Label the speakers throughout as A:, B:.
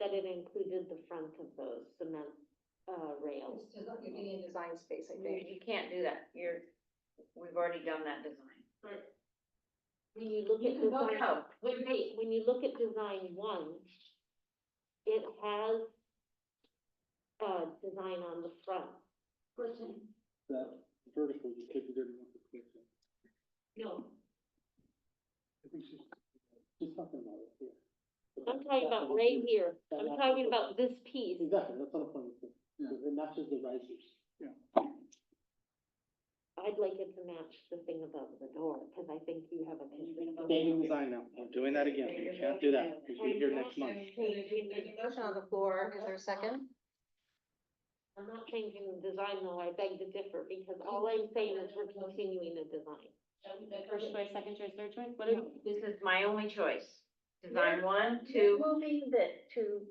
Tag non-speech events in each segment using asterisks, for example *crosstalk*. A: that it included the front of those cement, uh, rails.
B: It's desi- You're getting a design space, I
C: You,
B: think.
C: you can't do that, you're, we've already done that design.
A: When you look
B: You
A: at
B: can vote
A: design,
C: no.
A: wait, wait, when you look at design one, it has, uh, design on the front.
D: that vertical, you take it in with the question.
A: No.
D: I think she's, she's talking about it here.
A: I'm talking about right here, I'm talking about this piece.
D: Exactly, that's not a funny thing, it matches the risers. Yeah.
A: I'd like it to match the thing above the door, because I think you have a concern about.
D: Same design now, I'm doing that again, you can't do that, you should be here next month.
B: There's a motion on the floor. Is there a second?
A: I'm not changing the design though, I beg to differ, because all I'm saying is we're continuing the design.
C: First choice, second choice, third choice, what
A: are-
C: This is my only choice, design
E: Yeah.
C: one,
E: You're
C: two,
E: moving that to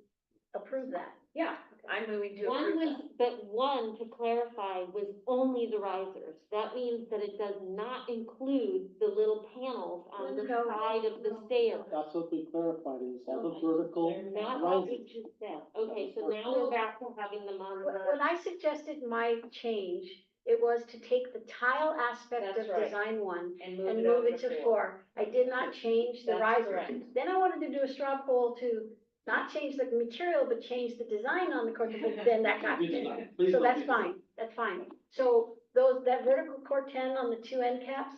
E: approve that.
C: yeah, I'm moving to
A: One
C: approve
A: was, but one, to clarify, was only the risers. That means that it does not include the little panels on the
E: No, no,
A: side of the
E: no.
A: stairs.
D: That's what we clarified, is all the
A: Okay.
D: vertical
A: Not what
D: risers.
A: we just said. Okay, so now we're back to having them on
E: When when
A: the,
E: I suggested my change, it was to take the tile aspect
C: That's
E: of
C: right.
E: design one
C: that and
E: and move it to four. I did not change the
C: That's
E: riser.
C: correct.
E: Then I wanted to do a straw poll to not change the material, but change the design on the corrugated, board. then
C: *laughs*
E: that got
D: Good
E: me.
D: design. Please
E: So
D: don't
E: that's
D: do that.
E: fine, that's fine. So those, that vertical core ten on the two end caps,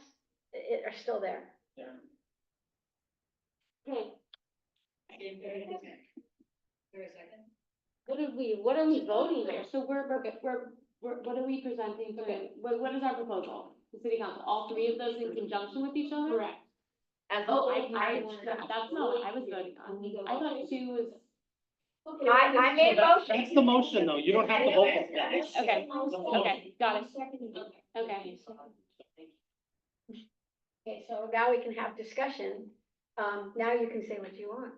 E: i- i- are still there.
A: okay,
B: There a second?
A: what are we, what are we voting on?
F: So we're, we're, we're- we're, what are we presenting for, the- what, what is our proposal? The city council, all three of those in conjunction with each other? Correct.
C: As a
F: Oh, I,
C: whole
F: I,
C: package.
F: that's not what I was voting on. I thought two was,
C: I, I made a motion.
D: That's the motion, though, you don't have to vote on that.
F: okay, okay, got it, okay.
E: Okay, so now we can have discussion. Um, now you can say what you want.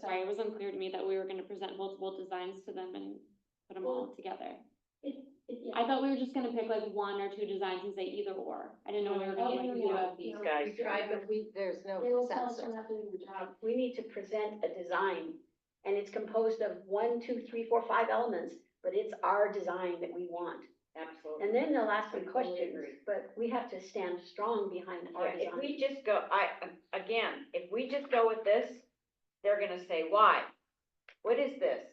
F: Sorry, it was unclear to me that we were gonna present multiple designs to them and put them all together. I thought we were just gonna pick like one or two designs and say either or. I didn't know we were gonna like do a.
C: These guys.
B: We tried, but we, there's no
E: They will tell us
B: consensus.
E: Um, We need to present a design, and it's composed of one, two, three, four, five elements, but it's our design that we want.
C: Absolutely.
E: And then they'll ask me
C: Totally
E: questions,
C: agree.
E: but we have to stand strong behind our
C: Yeah, If we
E: design.
C: just go, I, again, if we just go with this, they're gonna say, why? What is this?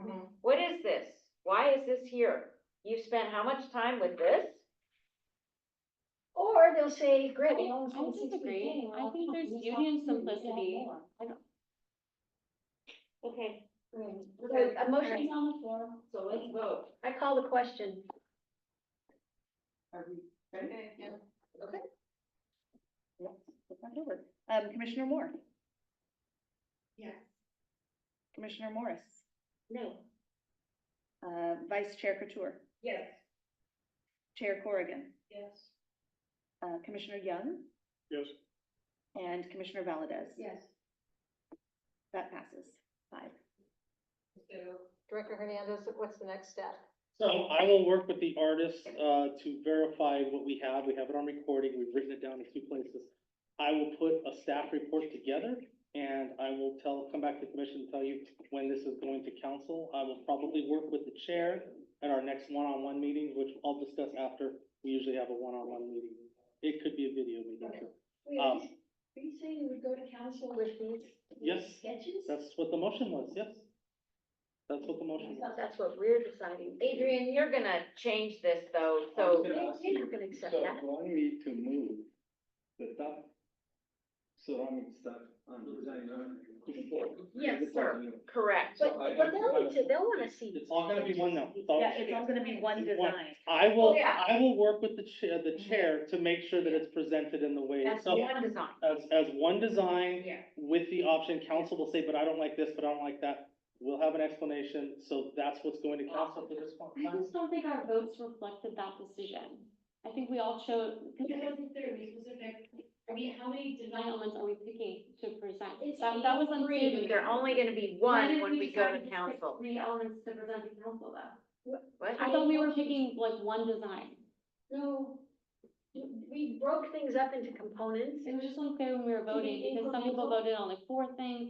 F: Mm-hmm.
B: Mhm.
C: What is this? Why is this here? You spent how much time with this?
E: Or they'll say, great,
F: I would disagree. I think there's beauty in simplicity.
A: Okay,
E: a a motion,
F: on the floor.
B: So let's vote.
E: I call the question.
B: Okay, yeah.
G: Flip that over. Um, Commissioner Moore? Yes. Commissioner Morris?
A: no,
G: Uh, Vice Chair Couture?
B: Yes.
G: Chair Corrigan?
B: Yes.
G: Uh, Commissioner Young?
D: Yes.
G: And Commissioner Valdez?
B: Yes.
G: That passes five.
B: Director Hernandez, what's the next step?
D: So I will work with the artist, uh, to verify what we have, we have it on recording, we've written it down in two places. I will put a staff report together, and I will tell, come back to the commission and tell you when this is going to council. I will probably work with the chair at our next one-on-one meeting, which I'll discuss after, we usually have a one-on-one meeting. It could be a video meeting,
E: Wait,
D: Um,
E: are you saying we go to council with these
D: Yes,
E: sketches?
D: that's what the motion was, yes? That's what the motion
E: I
D: was.
E: thought That's what we're deciding.
C: Adrian, you're gonna change this though, so
E: We're not gonna accept
H: So
E: that.
H: want me to move the top ceramic stuff on design one to four?
C: Yes,
H: Is it
C: sir.
H: possible?
C: correct.
E: But,
H: I-
E: but they'll need to, they'll wanna see.
D: It's all gonna be one now. It's all-
G: Yeah, it's all gonna be one design.
D: I will,
C: Yeah.
D: I will work with the chair, the chair to make sure that it's presented in the way,
E: That's
D: so,
C: One design.
D: as, as one design
C: Yeah.
D: with the option, council will say, but I don't like this, but I don't like that. We'll have an explanation, so that's what's going to council for this one.
F: I just don't think our votes reflected that decision. I think we all chose, because it wasn't clear, it was specific. I mean, how many design elements are we picking to present?
A: It's
F: That, that was unclear. to
C: Three,
F: me.
C: they're only gonna be
F: Why
C: one
F: did
C: when we go
F: decide
C: to
F: just pick
C: council.
F: Three elements to present to council though.
C: What?
F: I thought we were picking like one design.
E: No, we broke things up into components.
F: It was just unclear when we were voting, because some people voted on like four things,